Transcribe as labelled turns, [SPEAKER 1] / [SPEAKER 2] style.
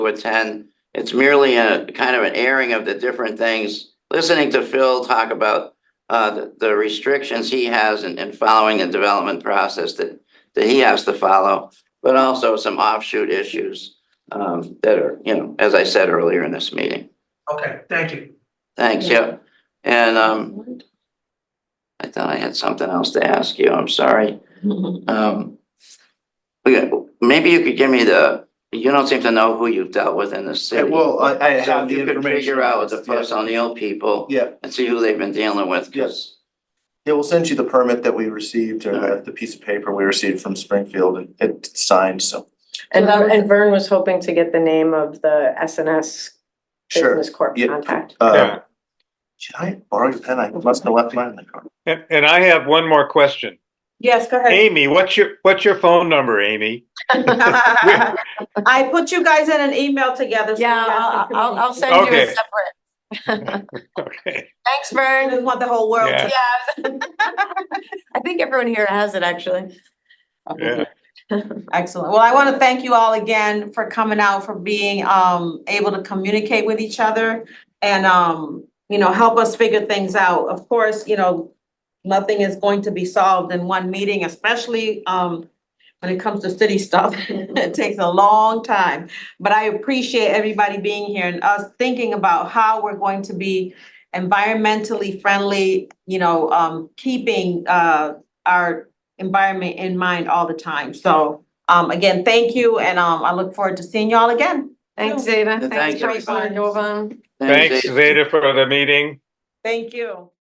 [SPEAKER 1] to attend. It's merely a kind of an airing of the different things, listening to Phil talk about uh, the- the restrictions he has and, and following the development process that, that he has to follow, but also some offshoot issues um, that are, you know, as I said earlier in this meeting.
[SPEAKER 2] Okay, thank you.
[SPEAKER 1] Thanks, yep. And um, I thought I had something else to ask you. I'm sorry. Um, we got- maybe you could give me the, you don't seem to know who you've dealt with in the
[SPEAKER 3] Yeah,
[SPEAKER 1] city.
[SPEAKER 3] well, I, I
[SPEAKER 1] So
[SPEAKER 3] have
[SPEAKER 1] if
[SPEAKER 3] the
[SPEAKER 1] you could
[SPEAKER 3] information.
[SPEAKER 1] figure out the
[SPEAKER 3] Yeah.
[SPEAKER 1] post O'Neill people
[SPEAKER 3] Yeah,
[SPEAKER 1] and see who they've been dealing with, because
[SPEAKER 3] yeah, we'll send you the permit that we received or the, the piece of paper we received from Springfield and it's signed, so.
[SPEAKER 4] And
[SPEAKER 5] So that was-
[SPEAKER 4] and Vern was hoping to get the name of the SNS
[SPEAKER 3] Sure,
[SPEAKER 4] Business Corp
[SPEAKER 3] yeah.
[SPEAKER 4] contact.
[SPEAKER 3] uh,
[SPEAKER 6] Yeah.
[SPEAKER 3] should I borrow your pen? I must have left mine in the car.
[SPEAKER 6] And, and I have one more question.
[SPEAKER 5] Yes, go ahead.
[SPEAKER 6] Amy, what's your, what's your phone number, Amy?
[SPEAKER 5] I put you guys in an email together. so you
[SPEAKER 7] Yeah,
[SPEAKER 5] guys
[SPEAKER 7] I'll,
[SPEAKER 5] can
[SPEAKER 7] I'll, I'll
[SPEAKER 5] communicate.
[SPEAKER 7] send you a
[SPEAKER 6] Okay.
[SPEAKER 7] separate.
[SPEAKER 6] Okay.
[SPEAKER 7] Thanks,
[SPEAKER 5] I
[SPEAKER 7] Vern.
[SPEAKER 5] just want the whole world
[SPEAKER 6] Yeah.
[SPEAKER 5] to.
[SPEAKER 7] Yeah. I think everyone here has it, actually.
[SPEAKER 6] Yeah.
[SPEAKER 5] Excellent. Well, I want to thank you all again for coming out, for being um able to communicate with each other and um, you know, help us figure things out. Of course, you know, nothing is going to be solved in one meeting, especially um when it comes to city stuff. It takes a long time. But I appreciate everybody being here and us thinking about how we're going to be environmentally friendly, you know, um keeping uh our environment in mind all the time. So um, again, thank you, and um, I look forward to seeing y'all again.
[SPEAKER 7] Thanks, Zeta.
[SPEAKER 1] Thanks,
[SPEAKER 7] Thanks, Joyce
[SPEAKER 5] everyone.
[SPEAKER 7] and Jovan.
[SPEAKER 6] Thanks, Zeta, for the meeting.
[SPEAKER 5] Thank you.